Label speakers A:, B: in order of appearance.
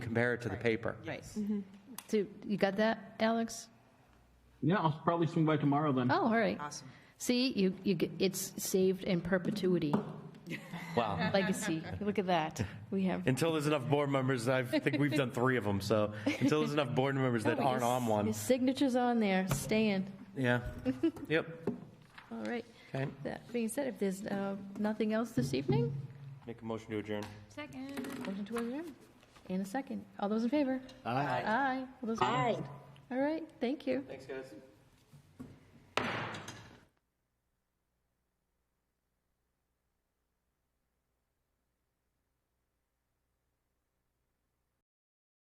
A: compare it to the paper.
B: Right.
C: So you got that, Alex?
D: Yeah, I'll probably swing by tomorrow then.
C: Oh, all right.
B: Awesome.
C: See, you, you, get- it's saved in perpetuity,
A: Wow.
C: legacy. Look at that. We have.
A: Until there's enough board members, I think we've done three of them, so until there's enough board members that
C: Oh, your
A: aren't on
C: s-
A: one,
C: Your signature's on there, staying.
A: yeah. Yep,
C: All right.
A: okay.
C: That being said, if there's uh, nothing else this evening,
A: Make a motion to adjourn.
C: motion to adjourn. In a second. All those in favor? Aye. Aye. All those opposed? All right, thank you.
A: Thanks, guys.